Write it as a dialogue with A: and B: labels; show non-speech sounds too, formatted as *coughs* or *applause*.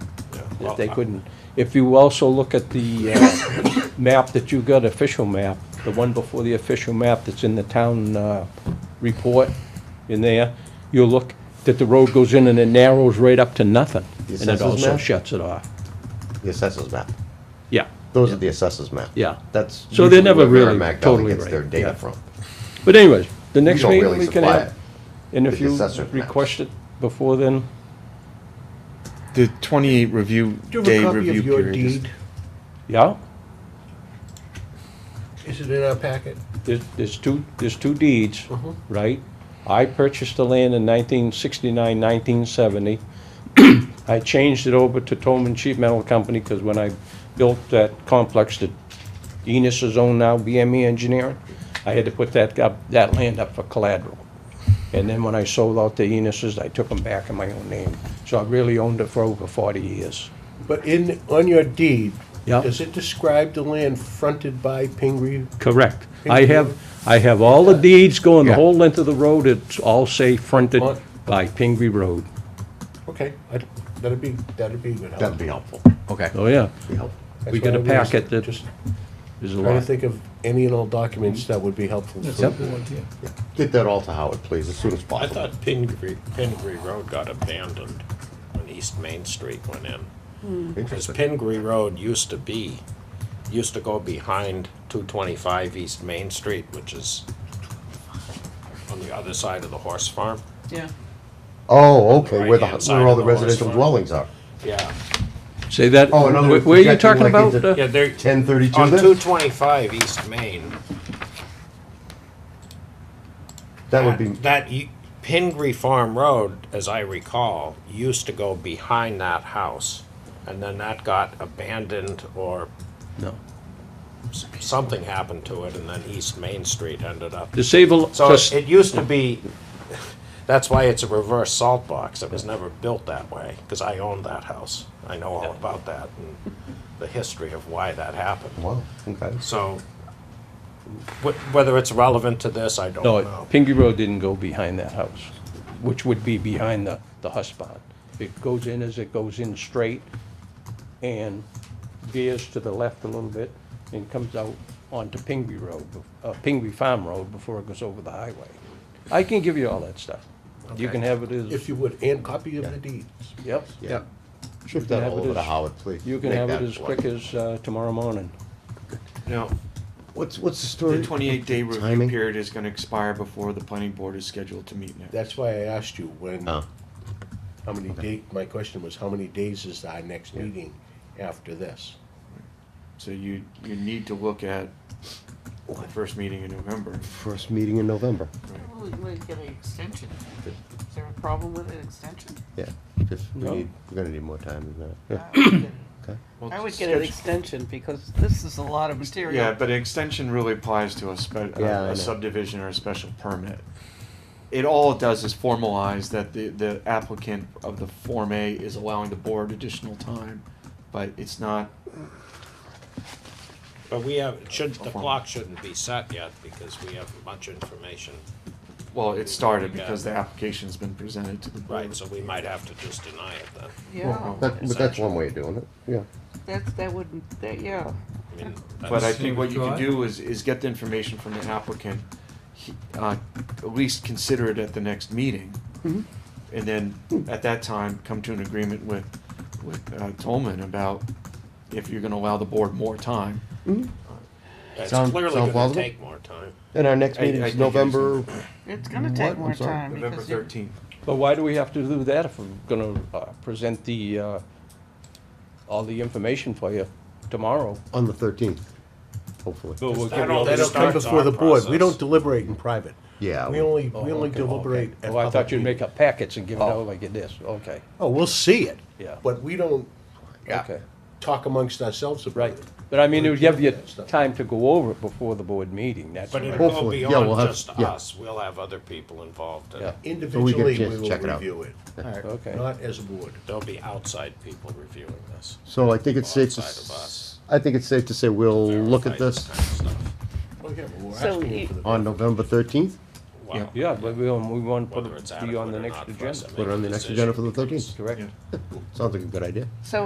A: if they couldn't. If you also look at the uh, *coughs* map that you got, official map, the one before the official map that's in the town uh, report in there, you'll look that the road goes in and it narrows right up to nothing. And
B: The
A: it
B: assessor's
A: also
B: map?
A: shuts it off.
B: The assessors map.
A: Yeah.
B: Those are the assessors map.
A: Yeah.
B: That's.
A: So they're
B: usually
A: never
B: where
A: really
B: Merrimack Valley
A: totally
B: Gets their
A: right,
B: data
A: yeah.
B: from.
A: But anyways, the next
B: don't
A: meeting
B: really
A: we can
B: supply
A: have,
B: it.
A: and if
B: The
A: you
B: assessor's maps.
A: request it before then,
C: The 28 review
D: Do you
C: day
D: have a copy
C: review
D: of your
C: period. is-
D: deed?
A: yeah,
D: Is it in our packet?
A: there's, there's two, there's two deeds, right? I purchased the land in 1969, 1970. I changed it over to Tolman Sheet Metal Company, because when I built that complex that Enos is owned now, BME Engineering, I had to put that, up that land up for collateral. And then when I sold out the Enos's, I took them back in my own name. So I really owned it for over 40 years.
D: But in, on your deed,
A: Yeah.
D: does it describe the land fronted by Pingree?
A: Correct.
D: Thank
A: I
D: you.
A: have, I have all the deeds going the
C: Yeah.
A: whole length of the road, it's all say fronted
D: What?
A: by Pingree Road.
D: Okay, I'd- that'd be, that'd be good.
B: That'd be helpful.
C: Okay.
A: Oh, yeah,
B: Be helpful.
D: That's
A: we
D: what
A: got a
D: I was
A: packet that-
D: Just
A: there's a
D: trying to
A: lot.
D: think of any and all documents that would be Mm-hmm. helpful.
E: That's
D: for-
E: a good idea.
B: Get that all to Howard, please, as soon as
F: I
B: possible.
F: thought Pingree, Pingree Road got abandoned when East Main Street went in.
B: Hmm.
F: Because
B: Interesting.
F: Pingree Road used to be, used to go behind two twenty-five East Main Street, which is on the other side of the horse farm.
E: Yeah.
B: Oh, okay, where the,
F: Right-hand side
B: where all
F: of
B: the
F: the horse
B: residential
F: farm.
B: dwellings are.
F: Yeah,
A: Say that,
B: Oh, in other
A: wh-
B: words,
A: where are you
B: projecting
A: talking
B: like
A: about?
B: into-
A: uh,
F: yeah, they're,
B: Ten thirty-two
F: on two
B: then?
F: twenty-five East Main.
B: That would be,
F: That, y- Pingree Farm Road, as I recall, used to go behind that house. And then that got abandoned or
A: No.
F: s- something happened to it, and then East Main Street ended up.
A: To save, a-
F: So
A: just-
F: it used to be, *laughs* that's why it's a reverse salt box. It was never built that way, because I owned that house. I know all about that and the history of why that happened.
B: wow, okay.
F: So wh- whether it's relevant to this, I don't
A: no,
F: know.
A: Pingree Road didn't go behind that house, which would be behind the, the husk barn. It goes in as it goes in straight and veers to the left a little bit and comes out onto Pingree Road, uh, Pingree Farm Road before it goes over the highway. I can give you all that stuff. You can have it as,
D: If you would, and copy of the deeds.
A: yep,
B: Yeah. Shift
A: can
B: that
A: have
B: all
A: it
B: over to
A: as-
B: Howard, please.
A: you can
B: Make
A: have
B: that
A: it as quick as uh, tomorrow morning.
F: No.
B: What's, what's the story?
C: The 28 day review
B: Timing?
C: period is going to expire before the planning board is scheduled to meet next.
D: That's why I asked you when,
B: Oh,
D: how many day, my question was, how many days is our next meeting after this?
C: So you you need to look at the first meeting in November.
B: first meeting in November,
G: Well, we might get an extension. Is there a problem with an extension?
B: yeah. Just, we
A: No.
B: need, we're gonna need more time than that. Yeah.
G: I would get-
B: Okay.
C: Well,
G: I would get an
C: schedule-
G: extension because this is a lot of material.
C: Yeah, but extension really applies to a spe-
B: Yeah, I
C: a,
B: know.
C: a subdivision or a special permit. It all it does is formalize that the, the applicant of the Form A is allowing the board additional time, but it's not,
F: But we have, it should, the clock shouldn't be set yet, because we have much information.
C: well, it started because the application's been presented to the board.
B: Mm.
F: Right, so we might have to just deny it then.
G: Yeah,
B: That, but that's one way of doing it, yeah.
G: that, that wouldn't, that, yeah.
F: I mean,
C: But I
F: that's-
C: think what you can do is, is get the information from the applicant, he- uh, at least consider it at the next meeting. And then, at that time, come to an agreement with, with uh, Tolman about if you're gonna allow the board more time.
F: It's
B: Sound-
F: clearly
B: sound
F: gonna
B: plausible?
F: take more time.
B: And our next
C: I- I
B: meeting is
C: think it is
B: November,
C: November.
G: It's gonna take
B: What?
G: more
B: I'm sorry.
G: time
C: November
G: because you,
C: thirteenth.
A: But why do we have to do that if we're gonna uh, present the, uh, all the information for you tomorrow?
B: on the thirteenth, hopefully.
A: But we'll give
F: That'll-
A: you all the
F: that'll
D: That'll come
F: Starts
D: before
F: our
D: the board. We
F: process.
D: don't deliberate in private.
B: Yeah,
D: We
B: we-
D: only,
A: Oh,
D: we only
A: okay,
D: deliberate
A: okay.
D: at
A: Oh, I thought
D: public Oh.
A: you'd make
D: meetings.
A: up packets and give it out like it is, okay,
D: Oh, we'll see it.
A: Yeah.
D: But we don't
A: okay,
D: talk amongst ourselves about
A: right.
D: it.
A: But I mean, it would give you
D: That stuff.
A: time to go over it before the board meeting, that's
F: But
A: what I-
F: it'll go
B: Hopefully, yeah, we'll
F: beyond
B: have-
F: just
B: yeah.
F: us, we'll have other people involved,
A: Yeah.
F: and
B: we
D: Individually,
B: get a
D: we
B: chance to check it
D: will
B: out.
D: review it.
A: Okay.
D: Not as a board.
F: there'll be outside people reviewing this.
B: So I think it's safe to,
F: Outside of
B: s-
F: us.
B: I think it's safe to say we'll look at
F: Verify
B: this
F: kind of stuff.
D: Well, yeah, but we're
G: So
D: asking you
G: you-
D: for the-
B: on November thirteenth,
F: Wow.
A: Yeah, but we, we want to put
F: Whether it's
A: it be on the
F: adequate or
A: next
F: not for us
A: agenda,
F: to
B: put it
F: make
B: on
F: a
B: the next
F: decision
B: agenda for the
F: becomes-
B: thirteenth.
A: correct?
C: Yeah.
B: Sounds like a good idea.
G: so